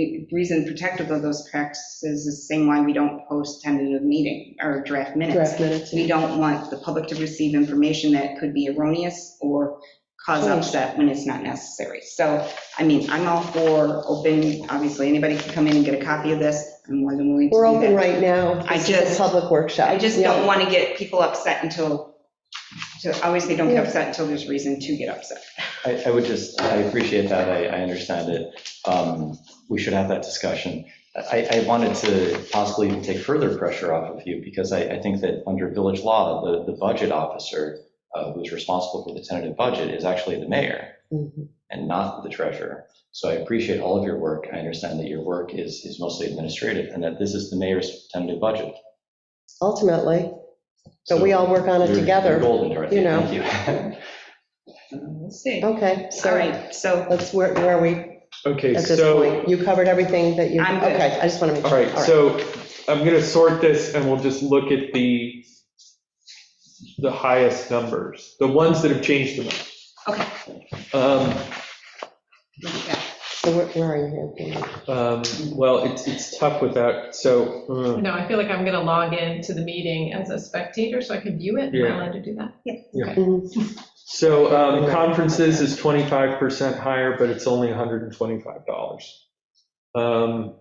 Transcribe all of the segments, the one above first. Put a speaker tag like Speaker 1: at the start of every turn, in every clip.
Speaker 1: the reason protective of those practices is the same why we don't post tentative meeting or draft minutes.
Speaker 2: Draft minutes.
Speaker 1: We don't want the public to receive information that could be erroneous or cause upset when it's not necessary. So, I mean, I'm all for open, obviously, anybody can come in and get a copy of this. I'm more than willing to do
Speaker 2: We're
Speaker 1: that.
Speaker 2: open right now.
Speaker 1: I
Speaker 2: This is
Speaker 1: just-
Speaker 2: a public workshop.
Speaker 1: I just
Speaker 2: Yeah.
Speaker 1: don't want to get people upset until, so obviously don't get
Speaker 2: Yeah.
Speaker 1: upset until there's reason to get upset.
Speaker 3: I, I would just, I appreciate that, I, I understand it. Um, We should have that discussion. I, I wanted to possibly even take further pressure off of you, because I, I think that under village law, the, the budget officer uh, who's responsible for the tentative budget is actually the mayor
Speaker 2: Mhm.
Speaker 3: and not the treasurer. So I appreciate all of your work, I understand that your work is, is mostly administrative, and that this is the mayor's tentative budget.
Speaker 2: Ultimately, but we
Speaker 3: So
Speaker 2: all work on it
Speaker 3: you're- You're
Speaker 2: together.
Speaker 3: golden, Dorothy,
Speaker 2: you know.
Speaker 3: thank you.
Speaker 1: We'll see. All
Speaker 2: Okay, so
Speaker 1: right, so
Speaker 2: let's, where where are we
Speaker 4: Okay,
Speaker 2: at this
Speaker 4: so,
Speaker 2: point? You covered everything that you,
Speaker 1: I'm good.
Speaker 2: okay, I just want to make
Speaker 4: all
Speaker 2: sure.
Speaker 4: right, so I'm going to sort this and we'll just look at the, the highest numbers, the ones that have changed the most.
Speaker 1: Okay.
Speaker 4: Um,
Speaker 1: look at that.
Speaker 2: So where- where are you here?
Speaker 4: um, Well, it's, it's tough without, so, uh,
Speaker 5: No, I feel like I'm going to log in to the meeting as a spectator so I can view it. Am I
Speaker 4: Yeah.
Speaker 5: allowed to do that?
Speaker 2: Mhm.
Speaker 4: so um, conferences is 25% higher, but it's only $125. Um,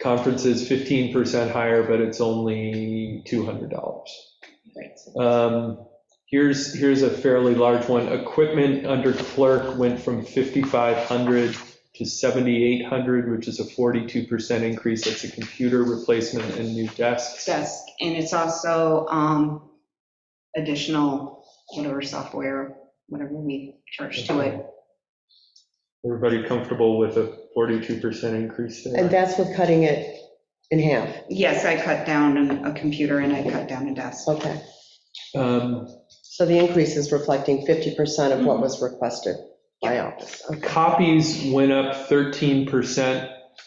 Speaker 4: Conferences 15% higher, but it's only $200.
Speaker 1: Great.
Speaker 4: Um, Here's, here's a fairly large one. Equipment under clerk went from 5,500 to 7,800, which is a 42% increase. That's a computer replacement and new desks.
Speaker 1: desk, and it's also um, additional, whatever software, whatever we charge to it.
Speaker 4: Everybody comfortable with a 42% increase
Speaker 2: And
Speaker 4: there?
Speaker 2: that's with cutting it in half,
Speaker 1: Yes, I cut down on a computer and I cut down a desk.
Speaker 2: okay.
Speaker 4: Um,
Speaker 2: So the increase is reflecting 50% of
Speaker 1: Mm-hmm.
Speaker 2: what was requested by office. Okay.
Speaker 4: Copies went up 13%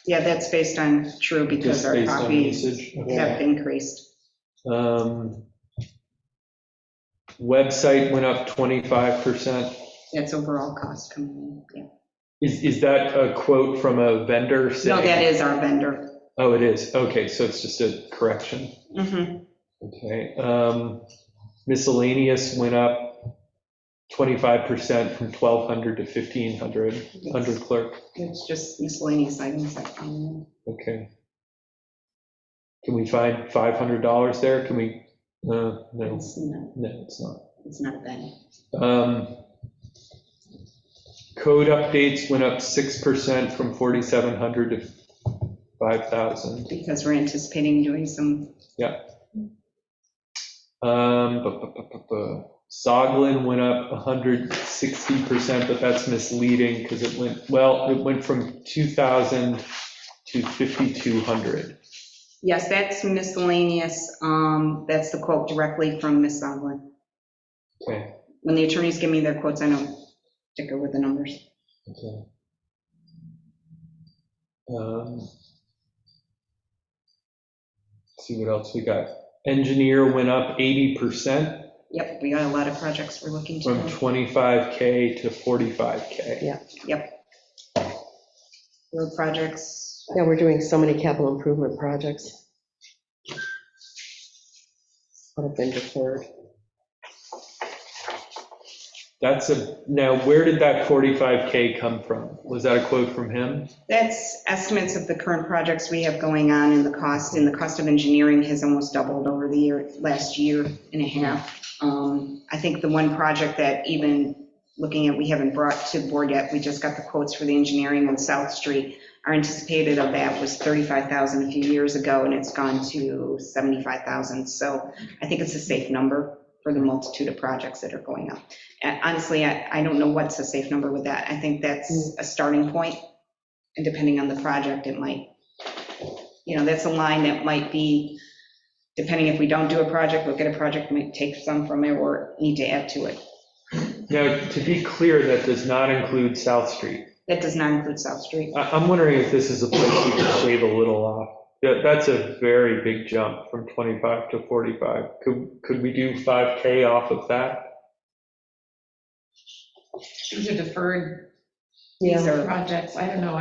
Speaker 1: Yeah, that's based on true because
Speaker 4: just
Speaker 1: our
Speaker 4: based on
Speaker 1: copies
Speaker 4: usage. Okay.
Speaker 2: Yeah.
Speaker 1: have increased.
Speaker 4: Um, Website went up 25%.
Speaker 1: That's overall cost coming in.
Speaker 4: Is, is that a quote from a vendor
Speaker 1: yeah.
Speaker 4: saying?
Speaker 1: No, that is our vendor.
Speaker 4: Oh, it is. Okay, so it's just a correction.
Speaker 1: Mhm.
Speaker 4: Okay. um, Miscellaneous went up 25% from 1,200 to 1,500, under clerk.
Speaker 1: It's just miscellaneous items that come in.
Speaker 4: Okay. Can we find $500 there? Can we, uh, no,
Speaker 1: It's not,
Speaker 4: no, it's not.
Speaker 1: it's not that.
Speaker 4: Um, Code updates went up 6% from 4,700 to 5,000.
Speaker 1: because we're anticipating doing some,
Speaker 4: Um, bu- bu- bu- bu- bu- Soglin went up 160%, but that's misleading because it went, well, it went from 2,000 to 5,200.
Speaker 1: yes, that's miscellaneous. Um, That's the quote directly from Ms. Sondland.
Speaker 4: Okay.
Speaker 1: when the attorneys give me their quotes, I don't sticker with the numbers.
Speaker 4: okay. Um, See what else we got. Engineer went up 80%
Speaker 1: Yep, we got a lot of projects we're looking
Speaker 4: from
Speaker 1: to.
Speaker 4: 25K to 45K.
Speaker 1: Road projects,
Speaker 2: Yeah, we're doing so many capital improvement projects. What have been deferred.
Speaker 4: That's a, now, where did that 45K come from? Was that a quote from him?
Speaker 1: that's estimates of the current projects we have going on and the cost, and the cost of engineering has almost doubled over the year, last year and a half. Um, I think the one project that even looking at, we haven't brought to the board yet, we just got the quotes for the engineering on South Street. Our anticipated of that was 35,000 a few years ago, and it's gone to 75,000. So I think it's a safe number for the multitude of projects that are going up. And Honestly, I, I don't know what's a safe number with that. I think that's a starting point, and depending on the project, it might, you know, that's a line that might be, depending if we don't do a project, look at a project, might take some from it or need to add to it.
Speaker 4: Now, to be clear, that does not include South Street.
Speaker 1: That does not include South Street.
Speaker 4: I- I'm wondering if this is a place you could shave a little off. That- That's a very big jump from 25 to 45. Could could we do 5K off of that?
Speaker 5: These are deferred these
Speaker 2: Yeah.
Speaker 5: projects, I don't know,